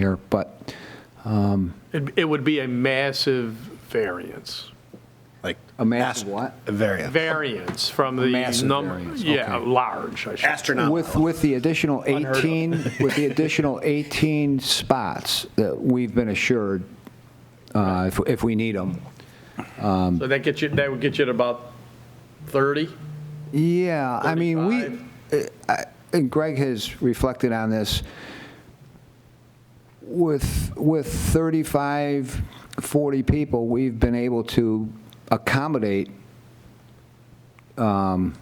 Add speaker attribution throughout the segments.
Speaker 1: here, but
Speaker 2: It it would be a massive variance,
Speaker 3: Like
Speaker 1: a massive what?
Speaker 3: a variant.
Speaker 2: variance from the
Speaker 1: massive
Speaker 2: number,
Speaker 1: variance,
Speaker 2: yeah,
Speaker 1: okay.
Speaker 2: large, I should.
Speaker 1: With,
Speaker 3: Astronomical.
Speaker 1: with the additional
Speaker 2: Unheard of.
Speaker 1: 18, with the additional 18 spots that we've been assured, uh, if, if we need them.
Speaker 2: So that gets you, that would get you to about 30?
Speaker 1: Yeah, I mean, we, uh, I- and Greg has reflected on this, with, with 35, 40 people, we've been able to accommodate um,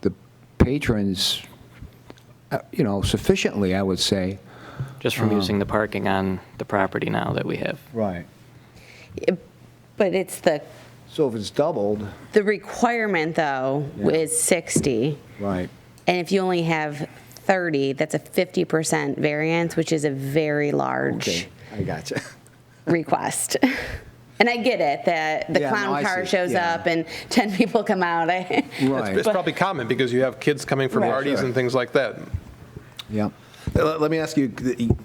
Speaker 1: the patrons, uh, you know, sufficiently, I would say.
Speaker 4: just from using the parking on the property now that we have.
Speaker 1: Right.
Speaker 5: But it's the,
Speaker 1: So if it's doubled.
Speaker 5: the requirement, though,
Speaker 1: Yeah.
Speaker 5: is 60.
Speaker 1: Right.
Speaker 5: And if you only have 30, that's a 50% variance, which is a very large
Speaker 1: I gotcha.
Speaker 5: request. And I get it, that the
Speaker 1: Yeah, no, I
Speaker 5: clown car
Speaker 1: see,
Speaker 5: shows
Speaker 1: yeah.
Speaker 5: up and 10 people come out. I-
Speaker 1: Right,
Speaker 6: It's probably common because you have kids coming from
Speaker 5: Right.
Speaker 6: parties
Speaker 1: Sure.
Speaker 6: and things like that.
Speaker 1: yeah.
Speaker 3: Uh, Let let me ask you, you-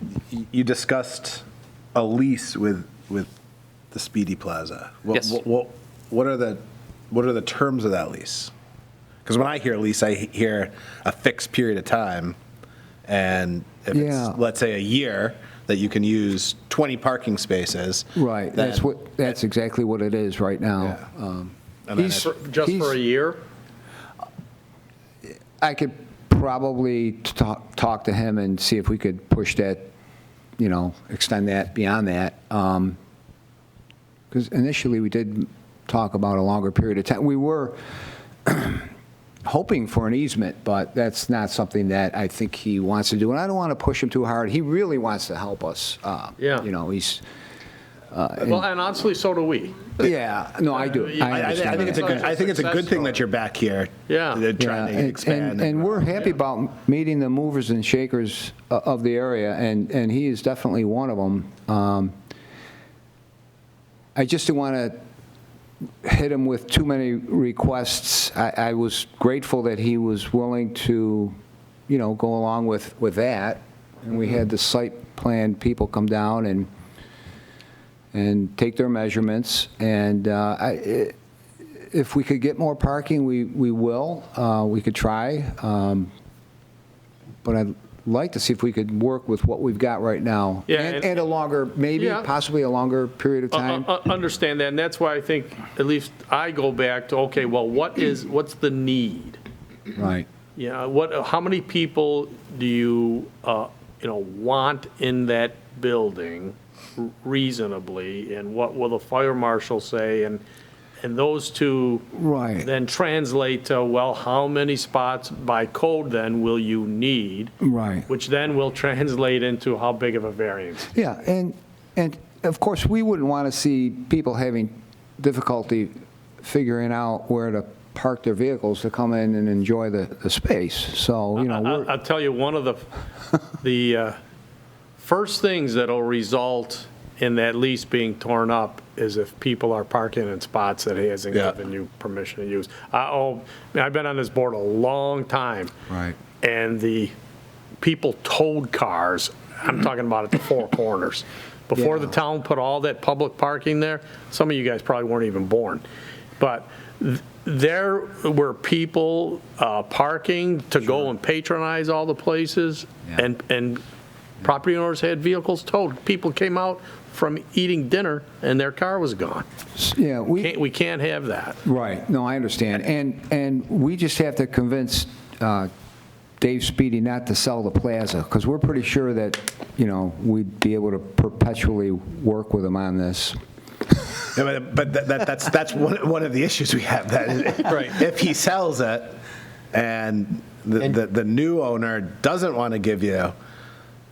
Speaker 3: you discussed a lease with, with the Speedy Plaza. What-
Speaker 4: Yes.
Speaker 3: what- What, what are the, what are the terms of that lease? Because when I hear lease, I hear a fixed period of time. And if
Speaker 1: Yeah.
Speaker 3: it's, let's say, a year, that you can use 20 parking spaces.
Speaker 1: Right, that's
Speaker 3: then-
Speaker 1: what, that's exactly what it is right now.
Speaker 3: Yeah.
Speaker 1: Um,
Speaker 3: And then
Speaker 1: he's-
Speaker 3: it-
Speaker 2: For- Just for a
Speaker 1: he's-
Speaker 2: year?
Speaker 1: I could probably talk, talk to him and see if we could push that, you know, extend that beyond that. Because initially, we did talk about a longer period of time. We were hoping for an easement, but that's not something that I think he wants to do. And I don't want to push him too hard. He really wants to help us. uh,
Speaker 2: Yeah.
Speaker 1: You know, he's,
Speaker 2: Well, and honestly, so do we.
Speaker 1: yeah, no, I do.
Speaker 2: I-
Speaker 3: I, I thi- I think it's a good, I think it's a good thing that you're back here.
Speaker 2: Yeah.
Speaker 3: uh,
Speaker 1: Yeah,
Speaker 3: Trying
Speaker 1: and-
Speaker 3: to expand.
Speaker 1: And, and we're happy about meeting the movers and shakers o- of the area, and, and he is definitely one of them. Um, I just didn't want to hit him with too many requests. I, I was grateful that he was willing to, you know, go along with, with that. And we had the site plan people come down and, and take their measurements, and uh, I, i- if we could get more parking, we, we will, Uh, we could try, Um, but I'd like to see if we could work with what we've got right now.
Speaker 2: Yeah,
Speaker 1: And
Speaker 2: and-
Speaker 1: and a longer, maybe,
Speaker 2: Yeah.
Speaker 1: possibly a longer period of
Speaker 2: Uh,
Speaker 1: time.
Speaker 2: uh, uh, Understand that, and that's why I think, at least I go back to, okay, well, what is, what's the need?
Speaker 1: Right.
Speaker 2: Yeah, what, how many people do you, uh, you know, want in that building reasonably? And what will the fire marshal say? And, and those two.
Speaker 1: Right.
Speaker 2: Then translate to, well, how many spots by code then will you need?
Speaker 1: Right.
Speaker 2: Which then will translate into how big of a variance.
Speaker 1: Yeah, and, and of course, we wouldn't want to see people having difficulty figuring out where to park their vehicles to come in and enjoy the, the space, so, you know,
Speaker 2: I-
Speaker 1: we're,
Speaker 2: I'll tell you, one of the, the uh, first things that'll result in that lease being torn up is if people are parking in spots that he hasn't
Speaker 3: Yeah.
Speaker 2: given you permission to use. I- Oh, I've been on this board a long time.
Speaker 1: Right.
Speaker 2: And the people towed cars, I'm talking about at the Four Corners. Before the
Speaker 1: Yeah.
Speaker 2: town put all that public parking there, some of you guys probably weren't even born, but th- there were people uh, parking to go and patronize all the places,
Speaker 1: Yeah.
Speaker 2: and, and property owners had vehicles towed. People came out from eating dinner and their car was gone.
Speaker 1: yeah, we.
Speaker 2: Can't- We can't have that.
Speaker 1: Right, no, I understand, and, and we just have to convince uh, Dave Speedy not to sell the plaza, because we're pretty sure that, you know, we'd be able to perpetually work with him on this.
Speaker 3: Yeah, but but that, that, that's that's one, one of the issues we have. That is, if he sells it, and the, the, the new owner doesn't want to give you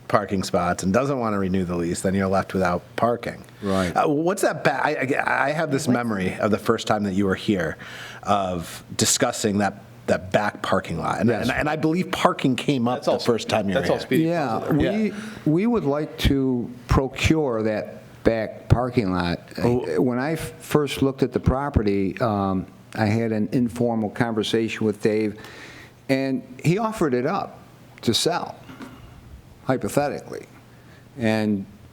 Speaker 3: parking spots and doesn't want to renew the lease, then you're left without parking.
Speaker 1: Right.
Speaker 3: Uh, what's that? Ba- I, I I have this memory of the first time that you were here, of discussing that that back parking lot, and, and, and I believe parking came up
Speaker 6: That's
Speaker 3: the
Speaker 6: all-
Speaker 3: first time you were
Speaker 6: that's
Speaker 3: here.
Speaker 6: all speed.
Speaker 1: Yeah, we, we would like to procure that back parking lot. When I f- first looked at the property, um, I had an informal conversation with Dave, and he offered it up to sell, hypothetically. And